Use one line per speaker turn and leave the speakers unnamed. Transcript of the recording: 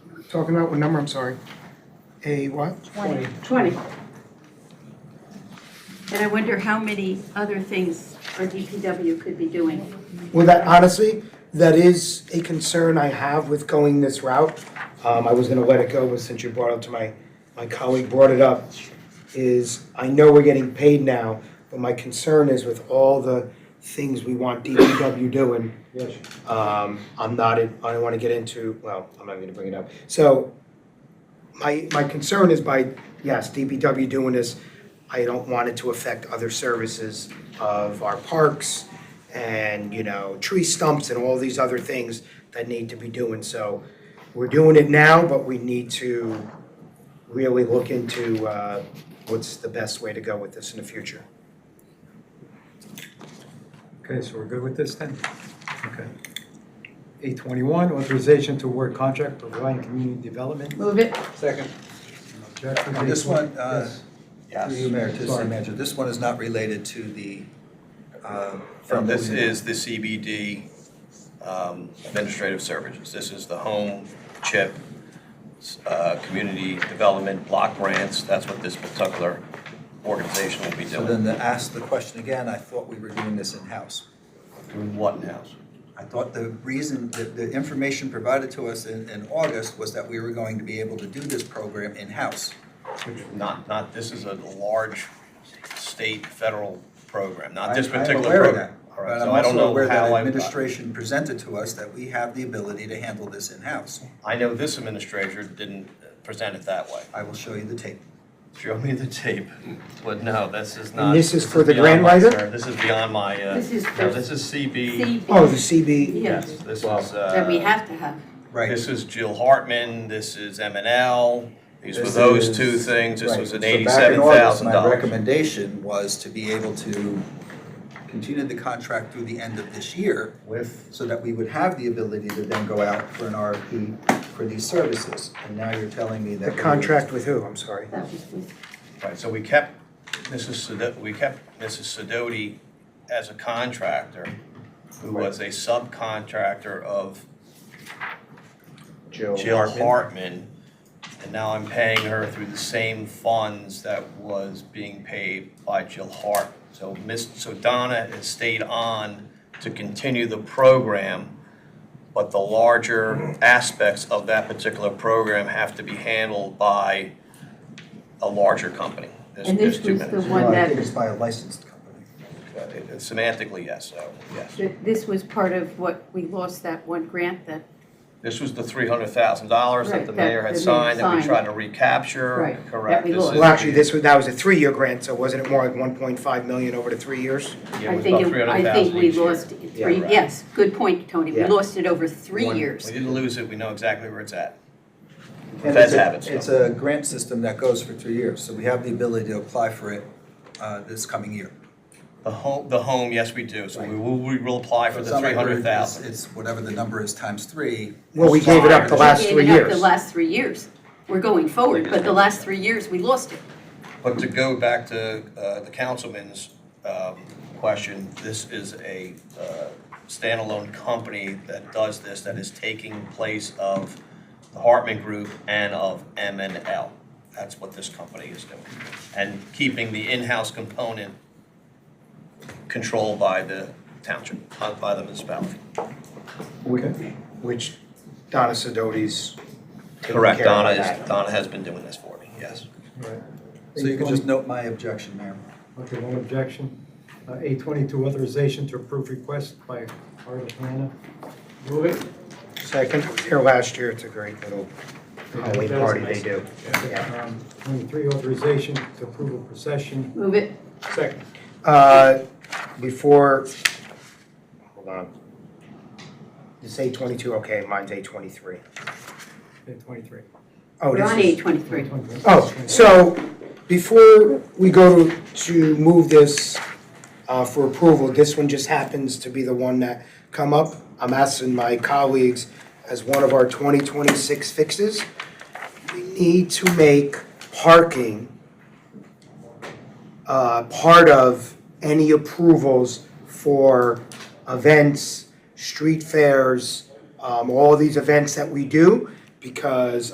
Talking about what number, I'm sorry. A what?
Twenty.
20. And I wonder how many other things our DPW could be doing.
Well, that honestly, that is a concern I have with going this route. Um, I was gonna let it go, but since you brought it up to my, my colleague brought it up, is I know we're getting paid now, but my concern is with all the things we want DPW doing.
Yes.
Um, I'm not, in- I don't wanna get into, well, I'm not gonna bring it up. So, my, my concern is by, yes, DPW doing this, I don't want it to affect other services of our parks and, you know, tree stumps and all these other things that need to be doing. So we're doing it now, but we need to really look into uh, what's the best way to go with this in the future.
Okay, so we're good with this then? Okay. Eight twenty-one, authorization to award contract providing community development.
Move it.
Second.
Objective
On this
eight-
one, uh,
Yes.
Through you, Mayor, to the City Manager, this one is not related to the, um,
And
from.
this is the CBD um, Administrative Services. This is the home chip, uh, community development block grants. That's what this particular organization will be
So then
doing.
to ask the question again, I thought we were doing this in-house.
Doing what now?
I thought the reason, the, the information provided to us in, in August was that we were going to be able to do this program in-house.
Not, not, this is a large state, federal program, not this
I'm- I'm
particular
aware of
program.
that,
All right,
But
so
I'm
I don't know
also aware that
how I-
administration presented to us that we have the ability to handle this in-house.
I know this administrator didn't present it that way.
I will show you the tape.
Show me the tape. But no, this is not.
this is for the grant
beyond my
writer?
concern. This is beyond my, uh,
This is
no,
for
this is CB.
CB.
Oh, the CB,
Yes,
Yes,
this is, uh,
that we have to have.
Right.
This is Jill Hartman, this is M and L, these were
This
those
is-
two things, this
right.
was an
So back in August,
eighty-seven thousand
My
dollars.
recommendation was to be able to continue the contract through the end of this year
With,
so that we would have the ability to then go out for an RFP for these services. And now you're telling me that.
the
we would-
contract with who, I'm sorry.
That was with
right, so we kept Mrs. Sedoti, we kept Mrs. Sedoti as a contractor, who was a subcontractor of Jill Hartman. And now I'm paying her through the same funds that was being paid by Jill Hart. So Miss, so Donna has stayed on to continue the program, but the larger aspects of that particular program have to be handled by a larger company. There's,
And this
there's two
was the
minutes.
Well,
One
I
that-
think it's by a licensed company.
Uh, Semantically, yes, so, yes.
That This was part of what we lost, that one grant that,
This was the three hundred thousand dollars that
Right,
the
that
mayor
the
had
mayor
signed that we
signed.
tried to recapture,
Right, that
correct?
we
This
lost.
is
Well, actually,
the-
this was, that was a three-year grant, so wasn't it more like one point five million over the three years?
Yeah, it
I
was
think,
about
it- I think
$300,000
we
each year.
lost it three,
right.
yes, good point, Tony. We
Yeah.
lost it over three
One-
years.
We didn't lose it, we know exactly where it's at.
And
Feds
it's a-
have it, so.
It's a grant system that goes for three years, so we have the ability to apply for it uh, this coming year.
The home, the home, yes, we do, so we will, we will apply for
It's
the
not
three
like we're-
hundred thousand.
It's it's whatever the number is times three.
Well, we gave it up the
Five.
last
We
three
gave
years.
it up the last three years. We're going forward, but the last three years, we lost it.
But to go back to, uh, the councilman's, um, question, this is a, uh, standalone company that does this, that is taking place of the Hartman Group and of M and L. That's what this company is doing, and keeping the in-house component controlled by the township, not by the municipality.
Okay.
which Donna Sidotti's taking care of
Correct, Donna
that.
is, Donna has been doing this for me, yes.
Right.
So you can just note my objection, Mayor.
Okay, one objection. Eight twenty-two, authorization to approve request by Art Atlanta. Move it.
Second, here last year, it's a great little Halloween
That was
party
nice.
they do. Yeah.
Um, Twenty-three, authorization to approve a procession.
Move it,
Second.
Uh, Before, hold on. It's eight twenty-two, okay, mine's eight twenty-three.
Eight twenty-three.
Oh,
we're
this
on
is-
eight twenty-three.
Oh, so before we go to- to move this uh, for approval, this one just happens to be the one that come up. I'm asking my colleagues as one of our 2026 fixes, we need to make parking uh, part of any approvals for events, street fairs, um, all these events that we do, because